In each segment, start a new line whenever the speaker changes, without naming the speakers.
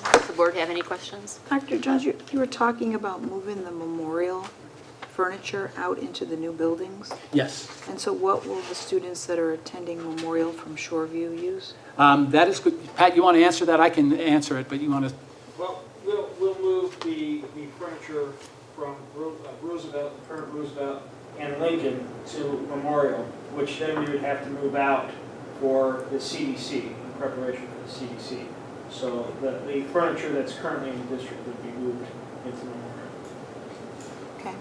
the board have any questions?
Dr. Jones, you you were talking about moving the memorial furniture out into the new buildings.
Yes.
And so what will the students that are attending Memorial from Shoreview use?
Um, That is good. Pat, you want to answer that? I can answer it, but you want to,
Well, we'll, we'll move the, the furniture from Ro- uh, Roosevelt, current Roosevelt and Lincoln to Memorial, which then we would have to move out for the CDC, in preparation for the CDC. So the, the furniture that's currently in the district would be moved into Memorial.
Okay.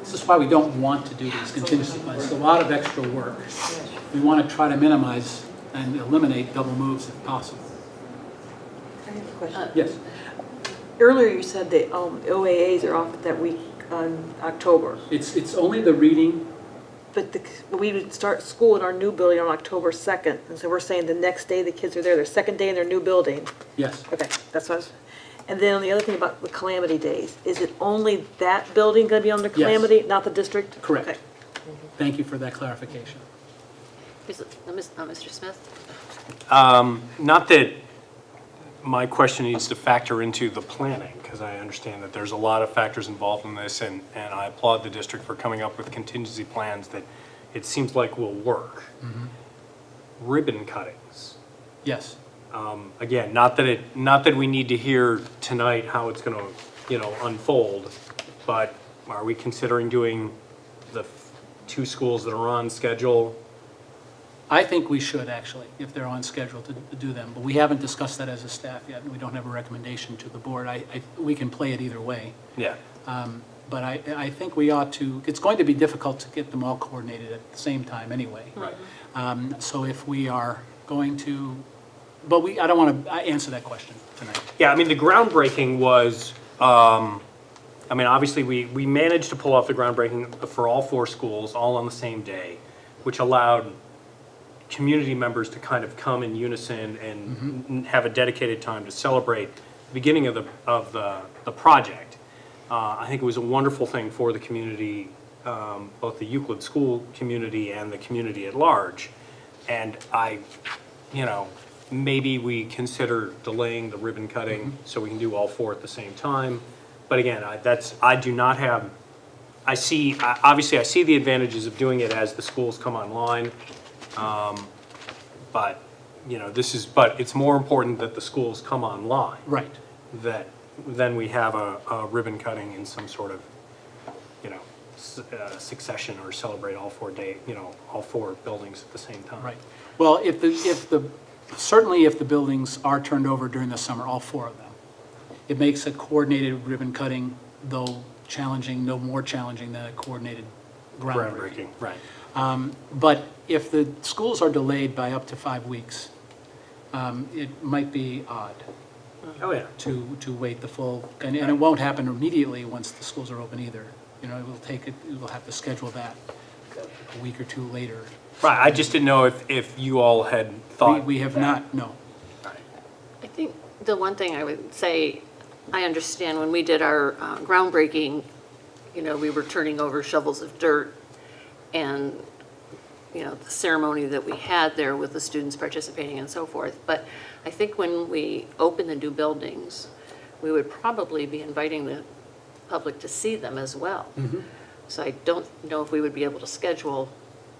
this is why we don't want to do these contingency plans. It's a lot of extra work. We want to try to minimize and eliminate double moves if possible.
I have a question.
Yes.
Uh, Earlier you said the um, OAAs are off that week on October,
It's, it's only the reading
but the, we would start school in our new building on October 2nd, and so we're saying the next day the kids are there, their second day in their new building.
Yes,
Okay, that's what I was, and then the other thing about the calamity days, is it only that building going to be under calamity, not the district? Okay.
correct. Thank you for that clarification.
Is it- uh, Miss- uh, Mr. Smith?
Not that my question needs to factor into the planning, because I understand that there's a lot of factors involved in this, and, and I applaud the district for coming up with contingency plans that it seems like will work. Ribbon cuttings.
Yes.
Um, Again, not that it, not that we need to hear tonight how it's going to, you know, unfold, but are we considering doing the f- two schools that are on schedule?
I think we should, actually, if they're on schedule to to do them, but we haven't discussed that as a staff yet, and we don't have a recommendation to the board. I, I- we can play it either way,
Yeah.
but I, I think we ought to, it's going to be difficult to get them all coordinated at the same time anyway.
Right.
Um, So if we are going to, but we, I don't want to answer that question tonight.
Yeah, I mean, the groundbreaking was, um, I mean, obviously, we, we managed to pull off the groundbreaking for all four schools, all on the same day, which allowed community members to kind of come in unison and n- have a dedicated time to celebrate the beginning of the, of the, the project. Uh, I think it was a wonderful thing for the community, um, both the Euclid school community and the community at large. And I, you know, maybe we consider delaying the ribbon cutting so we can do all four at the same time. But again, I, that's, I do not have I see, I- obviously, I see the advantages of doing it as the schools come online, um, but, you know, this is, but it's more important that the schools come online.
Right.
That, then we have a a ribbon cutting in some sort of, you know, s- uh, succession or celebrate all four day, you know, all four buildings at the same time.
Right. Well, if the, if the, certainly if the buildings are turned over during the summer, all four of them, it makes a coordinated ribbon cutting, though challenging, no more challenging than a coordinated groundbreaking.
Groundbreaking, right.
But if the schools are delayed by up to five weeks, um, it might be odd
Oh, yeah.
to, to wait the full, and, and it won't happen immediately once the schools are open either. You know, it will take, it we'll have to schedule that a week or two later.
Right, I just didn't know if, if you all had thought.
We, we have
that.
not, no.
I think the one thing I would say, I understand when we did our uh, groundbreaking, you know, we were turning over shovels of dirt and, you know, the ceremony that we had there with the students participating and so forth. But I think when we open the new buildings, we would probably be inviting the public to see them as well.
Mm-hmm.
So I don't know if we would be able to schedule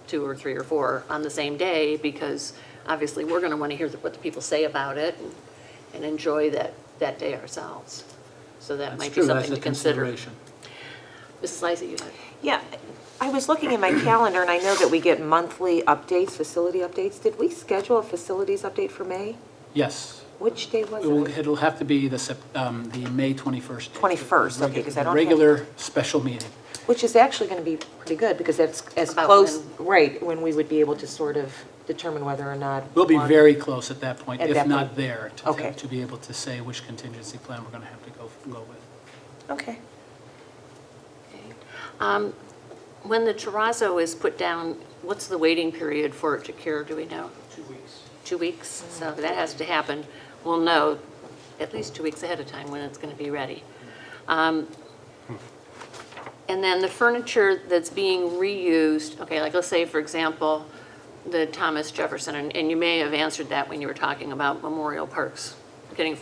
two or three or four on the same day, because obviously, we're going to want to hear what the people say about it and- and enjoy that, that day ourselves. So that
That's
might be
true, that's
something
a
to consider.
consideration.
Mrs. Lysy, you had,
Yeah, I was looking at my calendar, and I know that we get monthly updates, facility updates. Did we schedule a facilities update for May?
Yes.
Which day was
It will-
it?
It'll have to be the, Sep- um, the May 21st.
21st, okay, 'cause I don't have-
Regular special meeting.
Which is actually going to be pretty good, because that's as
About
close,
when-
right, when we would be able to sort of determine whether or not.
We'll be
one-
very close at that point,
At
if
that
not
point.
there, to-
Okay.
to to be able to say which contingency plan we're going to have to go, go with.
Okay.
okay. Um, When the terrazzo is put down, what's the waiting period for it to cure, do we know?
Two weeks.
Two weeks? So that has to happen. We'll know at least two weeks ahead of time when it's going to be ready. Um, And then the furniture that's being reused, okay, like let's say, for example, the Thomas Jefferson, and- and you may have answered that when you were talking about Memorial Parks, getting